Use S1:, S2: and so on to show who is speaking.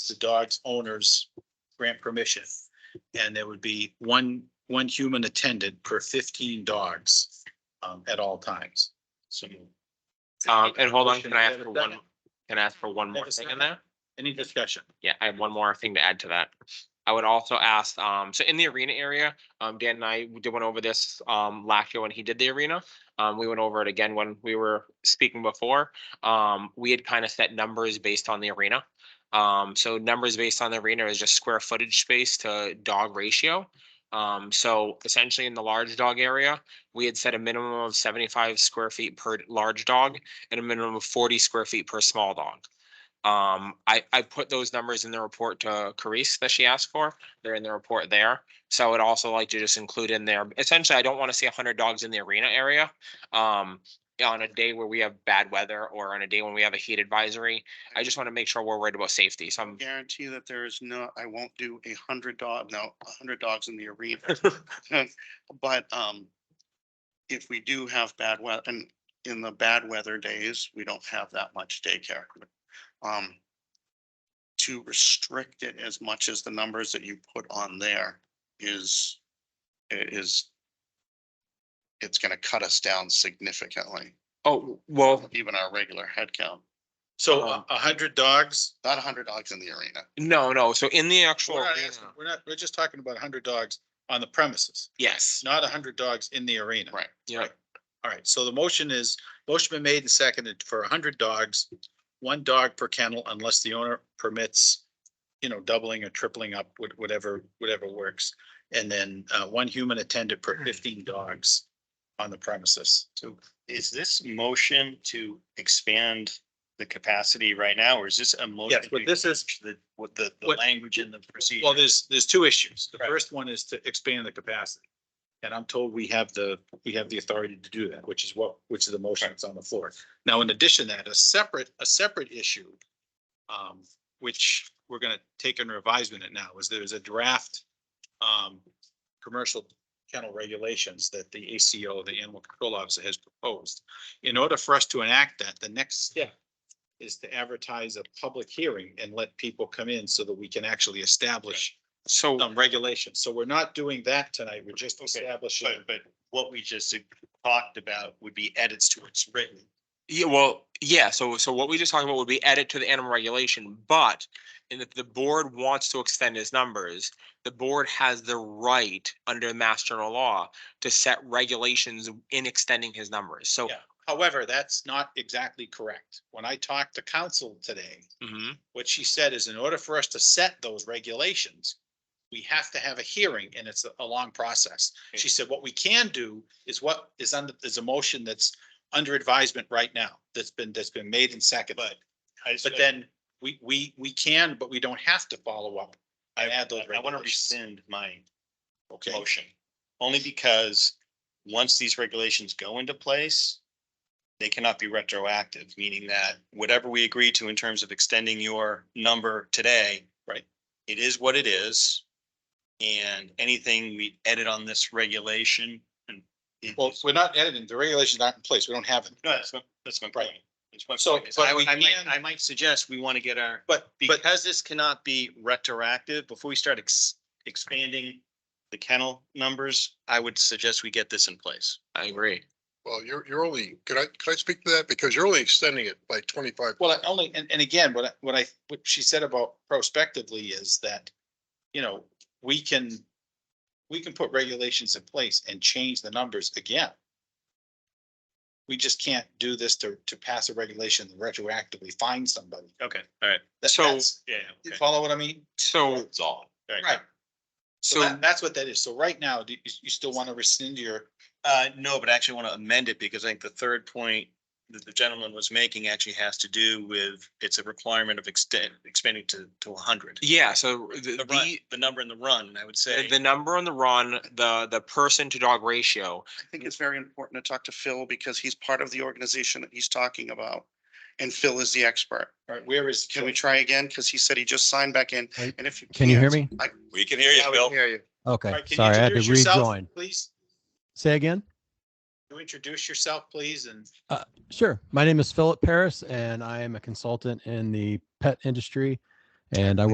S1: the dog's owners grant permission. And there would be one, one human attendant per fifteen dogs um, at all times. So.
S2: Um, and hold on, can I ask
S1: Never
S2: for
S1: done
S2: one,
S1: it.
S2: can I ask for one more
S1: Never
S2: thing
S1: said
S2: in
S1: that.
S2: there?
S1: Any discussion?
S2: Yeah, I have one more thing to add to that. I would also ask, um, so in the arena area, um, Dan and I we did went over this, um, last year when he did the arena. Um, we went over it again when we were speaking before. Um, we had kind of set numbers based on the arena. Um, so numbers based on the arena is just square footage space to dog ratio. Um, so essentially in the large dog area, we had set a minimum of seventy-five square feet per large dog and a minimum of forty square feet per small dog. Um, I, I put those numbers in the report to Carice that she asked for. They're in the report there. So I would also like to just include in there, essentially, I don't want to see hundred dogs in the arena area. Um, on a day where we have bad weather or on a day when we have a heat advisory, I just want to make sure we're worried about safety. So I'm,
S3: guarantee that there is no, I won't do a hundred dog, no, a hundred dogs in the arena. But, um, if we do have bad weather, and in the bad weather days, we don't have that much daycare. Um, to restrict it as much as the numbers that you put on there is, is, it's gonna cut us down significantly,
S2: oh, well,
S3: even our regular head count.
S1: So uh,
S2: Um,
S1: a a hundred dogs?
S3: not a hundred dogs in the arena.
S2: no, no. So in the actual,
S1: We're not,
S2: arena-
S1: asking- we're not- we're just talking about a hundred dogs on the premises,
S2: yes,
S1: not a hundred dogs in the arena.
S3: Right.
S2: yeah,
S1: All right, so the motion is, motion been made and seconded for hundred dogs, one dog per kennel unless the owner permits, you know, doubling or tripling up, wh- whatever, whatever works. And then uh, one human attendant per fifteen dogs on the premises.
S4: So is this motion to expand the capacity right now, or is this a motion?
S1: Yes, but this is-
S4: to The, what the, the
S1: What-
S4: language in the procedure?
S1: Well, there's, there's two issues. The
S4: Right.
S1: first one is to expand the capacity. And I'm told we have the, we have the authority to do that, which is what, which is the motion that's on the floor. Now, in addition to that, a separate, a separate issue, um, which we're gonna take under advisement it now, is there's a draft, um, commercial kennel regulations that the ACO, the Animal Control Officer has proposed. In order for us to enact that, the next step is to advertise a public hearing and let people come in so that we can actually establish
S2: so.
S1: some regulations. So we're not doing that tonight. We're just establishing.
S4: But, but what we just talked about would be edits to what's written.
S2: Yeah, well, yeah, so, so what we just talked about would be edit to the animal regulation, but and if the board wants to extend its numbers, the board has the right under Mass General Law to set regulations in extending his numbers, so.
S1: Yeah. However, that's not exactly correct. When I talked to council today,
S2: Mhm.
S1: what she said is in order for us to set those regulations, we have to have a hearing and it's a- a long process. She said, what we can do is what is under, is a motion that's under advisement right now, that's been, that's been made and seconded.
S4: I just-
S1: But then we, we, we can, but we don't have to follow up.
S4: I,
S1: add those
S4: I want to
S1: regulations.
S4: rescind my
S1: Okay.
S4: motion, only because once these regulations go into place, they cannot be retroactive, meaning that whatever we agree to in terms of extending your number today.
S1: Right.
S4: It is what it is. And anything we edit on this regulation and. it-
S1: Well, we're not editing, the regulations aren't in place, we don't have them.
S4: No, that's my, that's my point.
S1: Right.
S4: That's my
S1: So,
S4: point. is
S1: but
S4: I
S1: we
S4: would- I might,
S1: can-
S4: I might suggest we want to get our
S1: But, but,
S4: because this cannot be retroactive, before we start ex- expanding the kennel numbers, I would suggest we get this in place.
S2: I agree.
S5: Well, you're, you're only, could I, could I speak to that? Because you're only extending it by twenty-five.
S1: well, I only, and, and again, what, I- what I, what she said about prospectively is that, you know, we can, we can put regulations in place and change the numbers again. We just can't do this to, to pass a regulation and retroactively find somebody.
S4: Okay, all right.
S1: That-
S2: So-
S1: that's-
S4: Yeah.
S1: You follow what I mean?
S2: So,
S4: It's all.
S1: Right. So
S2: so,
S1: that, that's what that is. So right now, do you, you still want to rescind your,
S4: Uh, no, but I actually want to amend it because I think the third point that the gentleman was making actually has to do with, it's a requirement of extend, expanding to, to hundred.
S2: yeah, so the,
S4: The run,
S2: the,
S4: the number in the run, I would say.
S2: the number on the run, the, the person to dog ratio.
S3: I think it's very important to talk to Phil because he's part of the organization that he's talking about. And Phil is the expert.
S1: all right, where is?
S3: Can we try again? Because he said he just signed back in
S6: Hey,
S3: and if you.
S6: Can you hear
S3: can't,
S6: me?
S3: I-
S4: We can hear you, Bill.
S5: hear you.
S1: All
S6: Okay,
S1: right, can you
S6: sorry, I had to
S1: introduce yourself,
S6: rejoin.
S1: Please,
S6: Say again?
S1: Can you introduce yourself, please, and
S6: Sure. My name is Philip Paris and I am a consultant in the pet industry. And I work